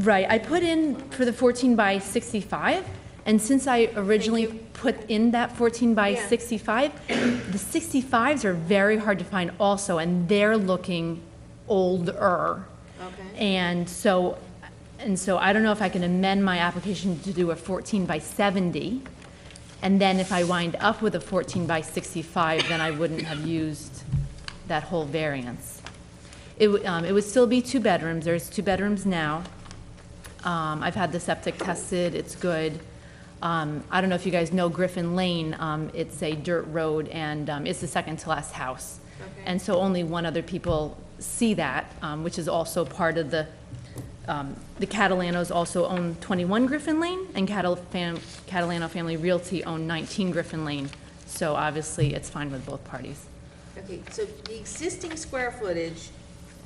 Right, I put in for the 14 by 65, and since I originally put in that 14 by Yeah. 65, the 65s are very hard to find also, and they're looking older. Okay. And so, and so I don't know if I can amend my application to do a 14 by 70, and then if I wind up with a 14 by 65, then I wouldn't have used that whole variance. It would, um, it would still be two bedrooms, there's two bedrooms now. Um, I've had the septic tested, it's good. Um, I don't know if you guys know Griffin Lane, um, it's a dirt road and, um, it's the second to last house. Okay. And so only one other people see that, um, which is also part of the, um, the Catalanos also own twenty-one Griffin Lane and Catal- fam- Catalano Family Realty own nineteen Griffin Lane. So obviously it's fine with both parties. Okay, so the existing square footage,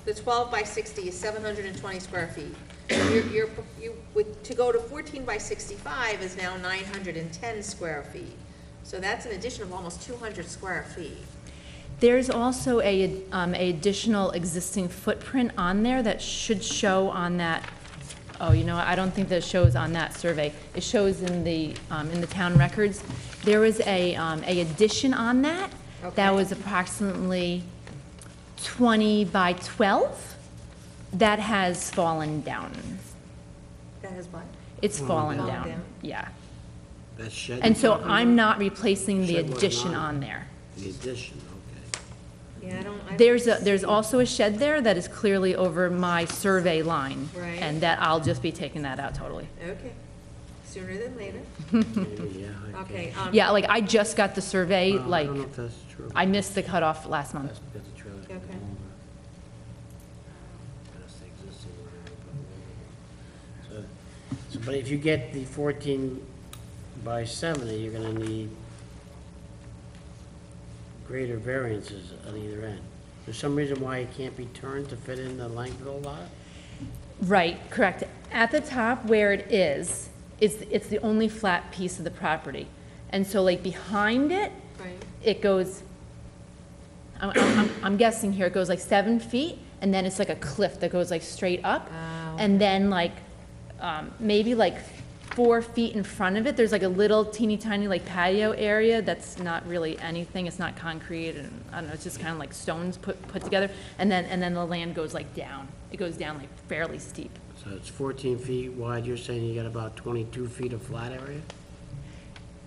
the twelve by sixty is seven hundred and twenty square feet. You're, you're, you, with, to go to fourteen by sixty-five is now nine hundred and ten square feet. So that's an addition of almost two hundred square feet. There's also a, um, a additional existing footprint on there that should show on that, oh, you know, what, I don't think that shows on that survey. It shows in the, um, in the town records. There was a, um, a addition on that. Okay. That was approximately twenty by twelve. That has fallen down. That is what? It's fallen down. Fallen down, down. yeah. Oh, That shed. And so you're talking I'm not replacing the Shed was addition not. on there. about? The addition, okay. Yeah, I don't, I. don't There's, a there's see- also a shed there that is clearly over my survey line. Right. And that, I'll just be taking that out totally. Okay, sooner than later. Yeah, Okay, okay. um. Yeah, like, I just got the survey, Well, I like, don't know if that's true. I missed the cutoff last month. That's because the trailer's been Okay. longer. That's the existing one, I don't know. So, so, but if you get the fourteen by seventy, you're gonna need greater variances on either end. There's some reason why it can't be turned to fit in the Langville lot? Right, correct. At the top where it is, it's, it's the only flat piece of the property. And so like behind it, Right, it goes, I'm, I'm, I'm guessing here, it goes like seven feet, and then it's like a cliff that goes like straight up. Oh. And then like, um, maybe like four feet in front of it, there's like a little teeny tiny like patio area that's not really anything, it's not concrete, and I don't know, it's just kind of like stones put, put together. And then, and then the land goes like down, it goes down like fairly steep. So it's fourteen feet wide, you're saying you got about twenty-two feet of flat area?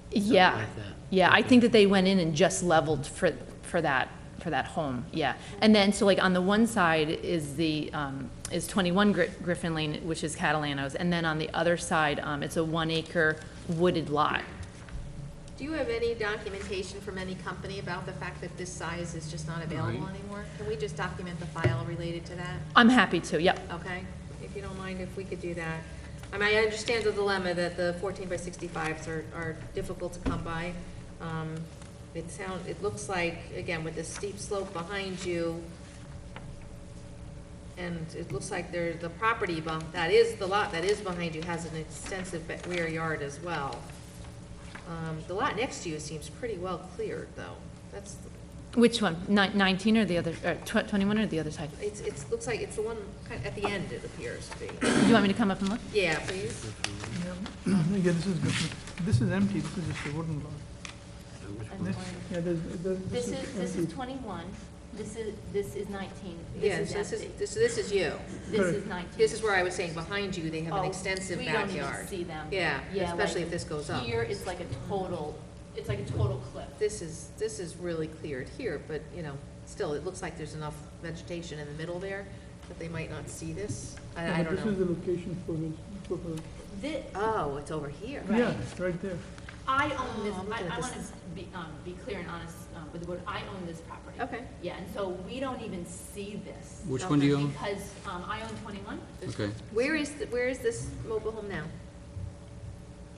Yeah, like that. yeah, I think that they went in and just leveled for, for that, for that home, yeah. And then, so like on the one side is the, um, is twenty-one Gri- Griffin Lane, which is Catalanos, and then on the other side, um, it's a one acre wooded lot. do you have any documentation from any company about the fact that this size is just not available anymore? Can we just document the file related to that? I'm happy to, yep, Okay, if you don't mind, if we could do that. I mean, I understand the dilemma that the fourteen by sixty-fives are, are difficult to come by. Um, It sound, it looks like, again, with the steep slope behind you, and it looks like there's the property bump, that is, the lot that is behind you has an extensive ba- rear yard as well. Um, The lot next to you seems pretty well cleared, though. That's, which one, Nine- nineteen or the other, or tw- twenty-one or the other side? it's, it's, looks like it's the one kind of at the end, it appears to be. Do you want me to come up and look? Yeah, please. Yeah, yeah, this is good. This is empty, this is just a wooden lot. This- Yeah, there's, there's. This is, this empty. is twenty-one, this is, this is nineteen, Yes, this this is is, empty, this, this is you. this Correct. is nineteen. This is where I was saying, behind you, they have an Oh, extensive We don't backyard. even see them. Yeah, like, especially if this goes up. Here is like a total, it's like a total cliff. This is, this is really cleared here, but, you know, still, it looks like there's enough vegetation in the middle there that they might not see this. Yeah, I, I but This don't is the know. location for this, for her. Thi- Oh, it's over here. Yeah, right there. I own this, Oh, I'm I, looking at I this. wanna be, um, be clear and honest um, with the board, I own this property. Okay. Yeah, and so we don't even see this. Which one do you own? Because, um, I own twenty-one, Okay. Where is, the- where is this mobile home now?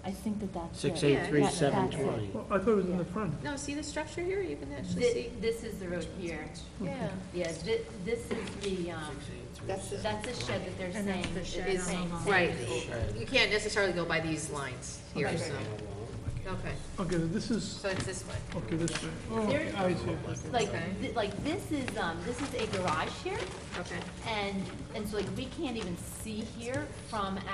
I think that that's Six eight three seven twenty. Well, I thought it was in the front. No, see the structure here? You can actually This, see. this is the road here, Yeah. yeah, thi- this is the, um, That's it. That's a shed that they're And saying. that's the that shed they're on saying the is Right. empty. You can't necessarily go by these lines here, so. Okay, Okay, this is, so it's this way. okay, this way. Oh, There- I see. Like, Okay. thi- like this is, um, this is a garage here, Okay. and, and so like, we can't even see here from